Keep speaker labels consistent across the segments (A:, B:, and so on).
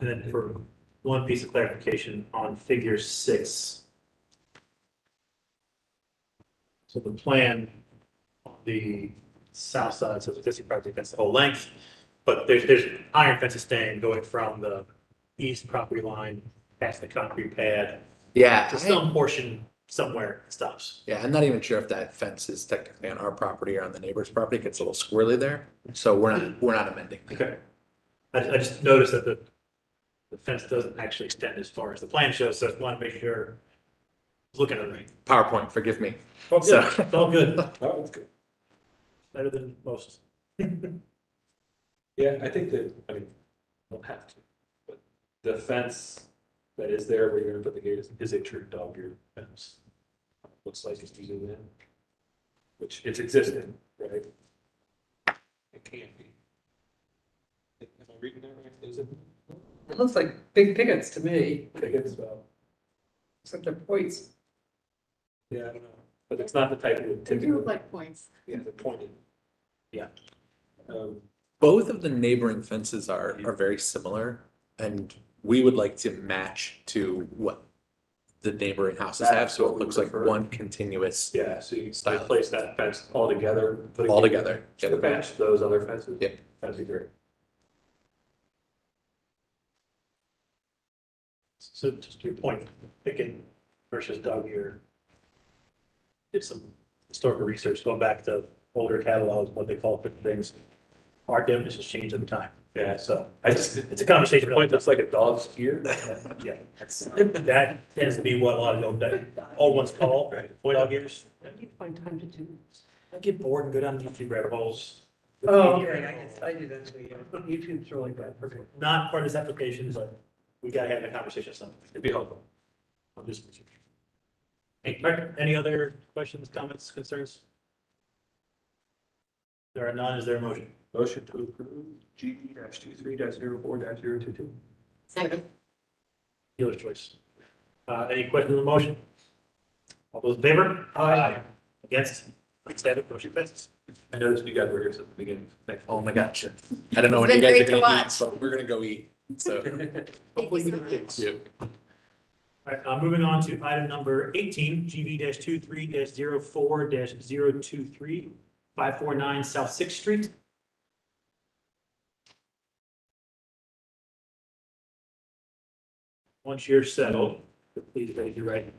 A: And then for one piece of clarification on figure six. So the plan on the south side, so the existing property fence the whole length, but there's, there's iron fences staying going from the east property line past the concrete pad
B: Yeah,
A: to
B: I-
A: some portion somewhere it stops.
B: yeah, I'm not even sure if that fence is technically on our property or on the neighbor's property. It gets a little squirrely there. So we're not, we're not amending.
A: Okay. I, I just noticed that the, the fence doesn't actually extend as far as the plan shows, so I want to make sure, looking at it right.
B: PowerPoint, forgive me.
A: Oh,
B: So-
A: good. It's all good.
C: Oh, that's good.
A: better than most.
C: Yeah, I think that, I mean, don't have to, but the fence that is there where you're gonna put the gate is, is a true dog ear fence. Looks like it's using that, which it's existing, right? It can be. Am I reading that right? Is it?
D: It looks like big pickets to me,
C: I think it's about,
D: except they're points.
C: yeah, I don't know, but it's not the type that would
E: They do
C: typically,
E: look like points.
C: yeah, the pointed.
A: Yeah.
C: Um,
B: Both of the neighboring fences are, are very similar and we would like to match to what the neighboring houses have. So it looks like one continuous
C: yeah, so you
B: Style.
C: replace that fence altogether. put a
B: all
C: gate-
B: together.
C: To match those other fences?
B: Yep.
C: That'd be great.
A: So just to your point, picking versus dog ear. Did some historical research going back to older catalogs, what they call different things. Our definitions change over time.
C: Yeah.
A: So
C: I just,
A: it's a conversation
C: point
A: point.
C: that's like a dog's ear.
A: Yeah. That tends to be what a lot of the old, old ones call void dog ears.
D: You find time to do.
A: I get bored and go down YouTube rabbit holes.
D: Oh, okay, I guess I do that too, yeah. YouTube's really bad for me.
A: Not part of this application, but we gotta have a conversation or something.
C: It'd be helpful.
A: on this particular. Any- all right, Any other questions, comments, concerns? There are none, is there a motion?
C: Motion to approve GD dash two three dash zero four dash zero two two.
E: Second.
A: Dealer's choice. Uh, any questions on the motion? All those in favor? Aye. Against? Extended motion passes.
C: I noticed you guys were here since the beginning. Thanks.
B: Oh my gosh. I don't know
E: It's
B: when you
E: been
B: guys are
E: great to
B: gonna eat,
E: watch.
B: but we're gonna go eat. So.
E: Thank you so much.
B: Yeah.
A: All right, uh, moving on to item number eighteen, GV 23 two three 4 zero four 549 South Sixth Street. Once you're settled, please raise your right. hand.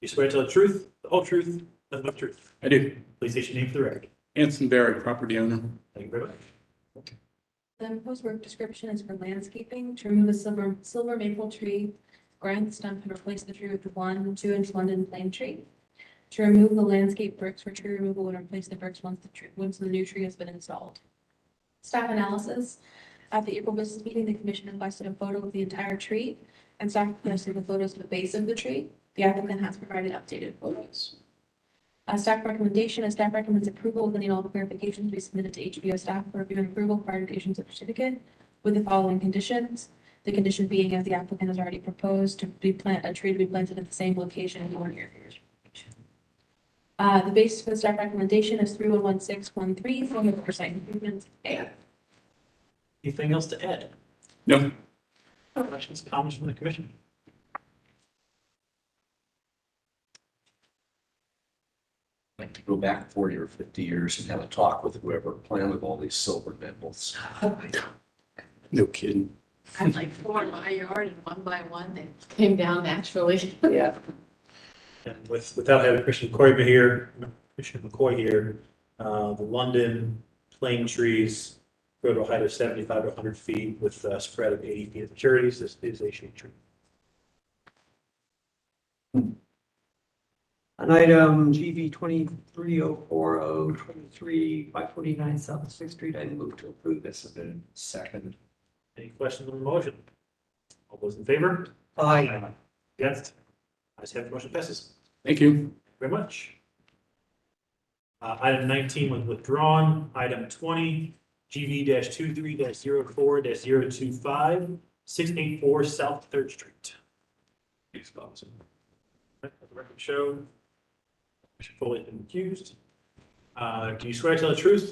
A: You swear to tell the truth, the whole truth, nothing but the truth.
F: I do.
A: Please state your name for the record.
F: Anson Barry, property owner.
A: Thank you very much.
G: The proposed work description is for landscaping to remove a silver, silver maple tree, grind the stump and replace the tree with one, two inch London plane tree. To remove the landscape bricks for tree removal and replace the bricks once the tree, once the new tree has been installed. Staff analysis, at the April business meeting, the commission requested a photo of the entire tree and staff requested the photos of the base of the tree. The applicant has provided updated photos. Uh, staff recommendation, is staff recommends approval of any all clarifications be submitted to HBO staff for review and approval prior to issuance of certificate with the following conditions. The condition being as the applicant has already proposed to be plant, a tree to be planted at the same location in one year. Uh, the basis for the staff recommendation is three one one six one three, four hundred percent improvements. A.
A: Anything else to add?
F: No,
A: Questions, comments from the commission?
H: like to go back forty or fifty years and have a talk with whoever planted all these silver maples.
F: no kidding.
E: I had like four in my yard and one by one, they came down naturally.
D: Yeah.
A: And with, without having Christian Corrigan here, Commissioner McCoy here, uh, the London plane trees grow to a height of seventy-five to hundred feet with a spread of eighty feet of maturities. This is a shade tree.
D: On item GV twenty-three oh four oh twenty-three, five forty-nine South Sixth Street, I move to approve this submitted.
H: Second,
A: Any questions on the motion? All those in favor?
D: Aye.
A: Against? I have the motion passes.
F: Thank you.
A: Very much. Uh, item nineteen was withdrawn. Item twenty, GV 23 two three 4 zero four 684 South Third Street.
C: Thanks, Bob.
A: Let the record show. Mr. Foley has been accused. Uh, do you swear to tell the truth,